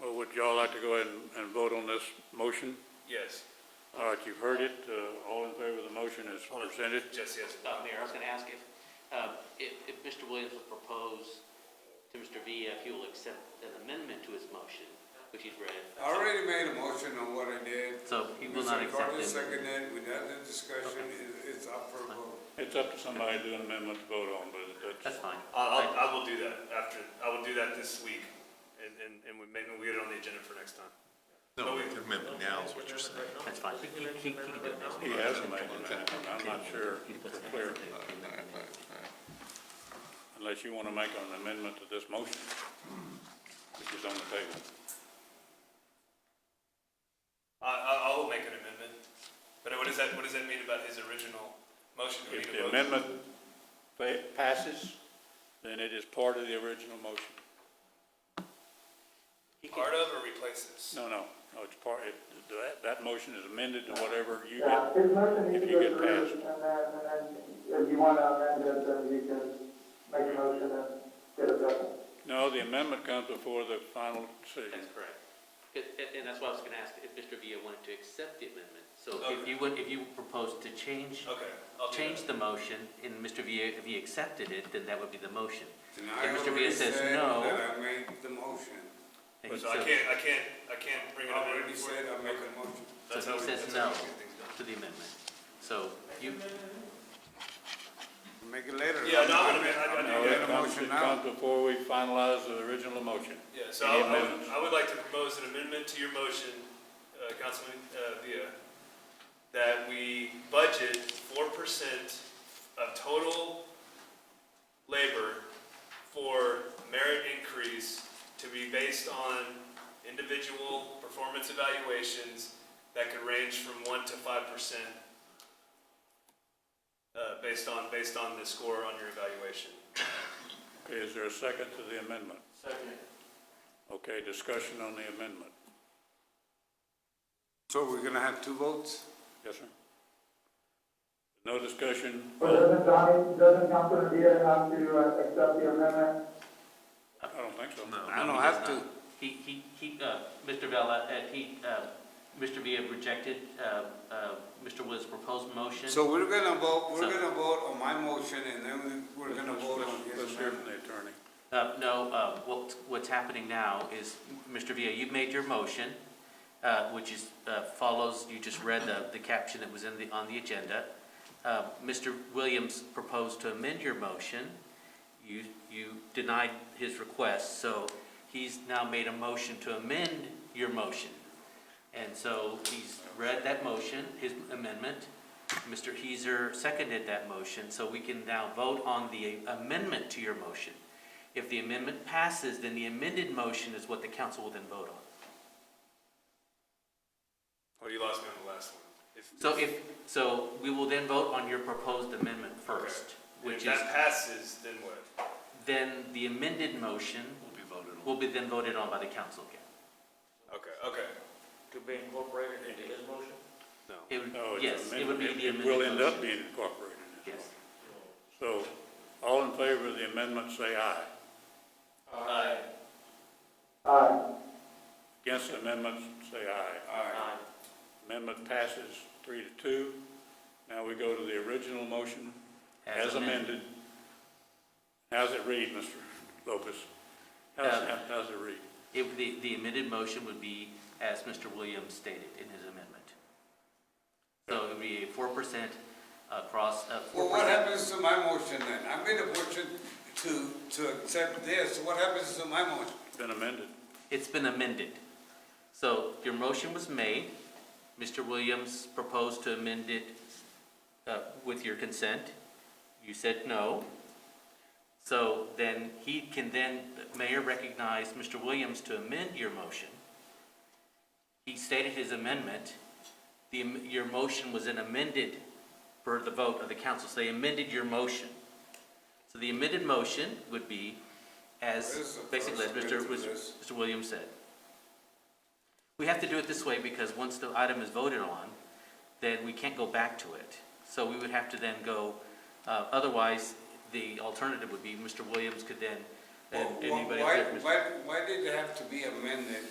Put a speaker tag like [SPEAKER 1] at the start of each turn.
[SPEAKER 1] Would y'all like to go ahead and- and vote on this motion?
[SPEAKER 2] Yes,
[SPEAKER 1] All right, you've heard it. Uh, All in favor of the motion as presented?
[SPEAKER 2] just yes.
[SPEAKER 3] Uh, Mayor, I was going to ask if, uh, if, if Mr. Williams would propose to Mr. Villa if he will accept an amendment to his motion, which he's read.
[SPEAKER 4] I already made a motion on what I did.
[SPEAKER 3] So he will not accept
[SPEAKER 4] Mr. Carter
[SPEAKER 3] it.
[SPEAKER 4] seconded, it. we had the discussion, It- it's up for a vote.
[SPEAKER 1] It's up to somebody to do an amendment to vote on, but
[SPEAKER 3] That's
[SPEAKER 1] that's,
[SPEAKER 3] fine.
[SPEAKER 2] I'll, I'll- I will do that after, I will do that this week, and, and, and we maybe we get it on the agenda for next time.
[SPEAKER 5] No, we can amend it now is what you're saying.
[SPEAKER 3] That's fine. He, he, he can do it next
[SPEAKER 1] he
[SPEAKER 3] week.
[SPEAKER 1] has a made an amendment. I'm not sure it's clear, unless you want to make an amendment to this motion, which is on the table.
[SPEAKER 2] I, I, I will make an amendment, but what does that, what does that mean about his original motion? Do we
[SPEAKER 1] If
[SPEAKER 2] need a
[SPEAKER 1] the
[SPEAKER 2] vote?
[SPEAKER 1] amendment fa- passes, then it is part of the original motion.
[SPEAKER 2] Part of or replaces?
[SPEAKER 1] No, no, no, it's part, it, that, that motion is amended to whatever you
[SPEAKER 6] Yeah,
[SPEAKER 1] get.
[SPEAKER 6] his motion
[SPEAKER 1] if
[SPEAKER 6] is
[SPEAKER 1] you
[SPEAKER 6] to
[SPEAKER 1] get
[SPEAKER 6] approve, and then, and then if you want to amend it, then you can make a motion and get it done.
[SPEAKER 1] No, the amendment comes before the final decision.
[SPEAKER 3] That's correct. And, and- and that's why I was going to ask if Mr. Villa wanted to accept the amendment. So if you would, if you proposed to change,
[SPEAKER 2] Okay, I'll do that.
[SPEAKER 3] change the motion, and Mr. Villa, if he accepted it, then that would be the motion.
[SPEAKER 4] And I
[SPEAKER 3] If Mr.
[SPEAKER 4] already
[SPEAKER 3] Villa says
[SPEAKER 4] said
[SPEAKER 3] no,
[SPEAKER 4] That I made the motion.
[SPEAKER 3] then he
[SPEAKER 2] So I
[SPEAKER 3] says-
[SPEAKER 2] can't, I can't, I can't bring an
[SPEAKER 4] I
[SPEAKER 2] amendment
[SPEAKER 4] already
[SPEAKER 2] before-
[SPEAKER 4] said I made the motion.
[SPEAKER 2] That's
[SPEAKER 3] So
[SPEAKER 2] how we-
[SPEAKER 3] he says
[SPEAKER 2] that's how
[SPEAKER 3] no
[SPEAKER 2] we get things done.
[SPEAKER 3] to the amendment. So you,
[SPEAKER 4] Make it later.
[SPEAKER 2] Yeah, no, I'm
[SPEAKER 4] I
[SPEAKER 2] gonna-
[SPEAKER 4] made-
[SPEAKER 2] I- I
[SPEAKER 4] I
[SPEAKER 2] do
[SPEAKER 1] No,
[SPEAKER 4] made
[SPEAKER 1] it
[SPEAKER 4] a
[SPEAKER 1] comes,
[SPEAKER 4] motion
[SPEAKER 1] it
[SPEAKER 4] now.
[SPEAKER 1] comes before we finalize the original motion.
[SPEAKER 2] Yeah, so
[SPEAKER 1] Any
[SPEAKER 2] I I would,
[SPEAKER 1] amendments?
[SPEAKER 2] I would like to propose an amendment to your motion, uh, Councilman uh, Villa, that we budget four percent of total labor for merit increase to be based on individual performance evaluations that could range from one to five percent uh, based on, based on the score on your evaluation.
[SPEAKER 1] Okay, is there a second to the amendment? Second. Okay, discussion on the amendment.
[SPEAKER 4] So we're gonna have two votes?
[SPEAKER 1] Yes, sir? No discussion?
[SPEAKER 6] But doesn't Donnie, doesn't Councilman Villa have to uh, accept the amendment?
[SPEAKER 1] I don't think so.
[SPEAKER 5] No.
[SPEAKER 4] I
[SPEAKER 3] No,
[SPEAKER 4] don't
[SPEAKER 3] he does
[SPEAKER 4] have to.
[SPEAKER 3] not. He, he, he, uh, Mr. Vella, uh, he, uh, Mr. Villa rejected, uh, uh, Mr. Wood's proposed motion.
[SPEAKER 4] So we're gonna vote, we're
[SPEAKER 3] So-
[SPEAKER 4] gonna vote on my motion and then we- we're gonna
[SPEAKER 1] Let's-
[SPEAKER 4] vote
[SPEAKER 1] let's-
[SPEAKER 4] on his
[SPEAKER 1] Let's hear
[SPEAKER 4] amendment.
[SPEAKER 1] from the attorney.
[SPEAKER 3] Uh, no, uh, what, what's happening now is, Mr. Villa, you've made your motion, uh, which is, uh, follows, you just read the, the caption that was in the, on the agenda. Uh, Mr. Williams proposed to amend your motion. You, you denied his request, so he's now made a motion to amend your motion. And so he's read that motion, his amendment. Mr. Heiser seconded that motion, so we can now vote on the amendment to your motion. If the amendment passes, then the amended motion is what the council will then vote on.
[SPEAKER 2] Oh, you lost me on the last one. If-
[SPEAKER 3] So if, so we will then vote on your proposed amendment first,
[SPEAKER 2] And If
[SPEAKER 3] which is,
[SPEAKER 2] that passes, then what?
[SPEAKER 3] then the amended motion
[SPEAKER 2] Will be voted
[SPEAKER 3] will be then voted on by the council again.
[SPEAKER 2] Okay, okay.
[SPEAKER 7] to be incorporated into his motion?
[SPEAKER 3] It would-
[SPEAKER 1] No, it's
[SPEAKER 3] yes, it would be
[SPEAKER 1] amended.
[SPEAKER 3] the
[SPEAKER 1] It
[SPEAKER 3] amended
[SPEAKER 1] will end up
[SPEAKER 3] motion.
[SPEAKER 1] being incorporated. in this
[SPEAKER 3] Yes.
[SPEAKER 1] motion. So, all in favor of the amendment, say aye.
[SPEAKER 7] Aye.
[SPEAKER 6] Aye.
[SPEAKER 1] Against amendments, say aye.
[SPEAKER 7] Aye.
[SPEAKER 1] Amendment passes three to two. Now we go to the original motion as amended. How's it read, Mr. Lopez? How's,
[SPEAKER 3] Um,
[SPEAKER 1] how- how's it read?
[SPEAKER 3] It, the, the amended motion would be as Mr. Williams stated in his amendment. So it would be a four percent across, uh,
[SPEAKER 4] Well,
[SPEAKER 3] four
[SPEAKER 4] what
[SPEAKER 3] percent.
[SPEAKER 4] happens to my motion then? I made a motion to, to accept this, what happens to my motion?
[SPEAKER 1] It's been amended.
[SPEAKER 3] It's been amended. So your motion was made, Mr. Williams proposed to amend it, uh, with your consent. You said no. So then he can then, the mayor recognized Mr. Williams to amend your motion. He stated his amendment. The, am- your motion was then amended for the vote of the council, so they amended your motion. So the amended motion would be
[SPEAKER 4] What is
[SPEAKER 3] as,
[SPEAKER 4] the
[SPEAKER 3] basically, as
[SPEAKER 4] first
[SPEAKER 3] Mr.
[SPEAKER 4] bit to
[SPEAKER 3] was-
[SPEAKER 4] this?
[SPEAKER 3] Mr. Williams said. We have to do it this way because once the item is voted on, then we can't go back to it. So we would have to then go, uh, otherwise, the alternative would be Mr. Williams could then, and
[SPEAKER 4] Why,
[SPEAKER 3] anybody.
[SPEAKER 4] why, why did it have to be amended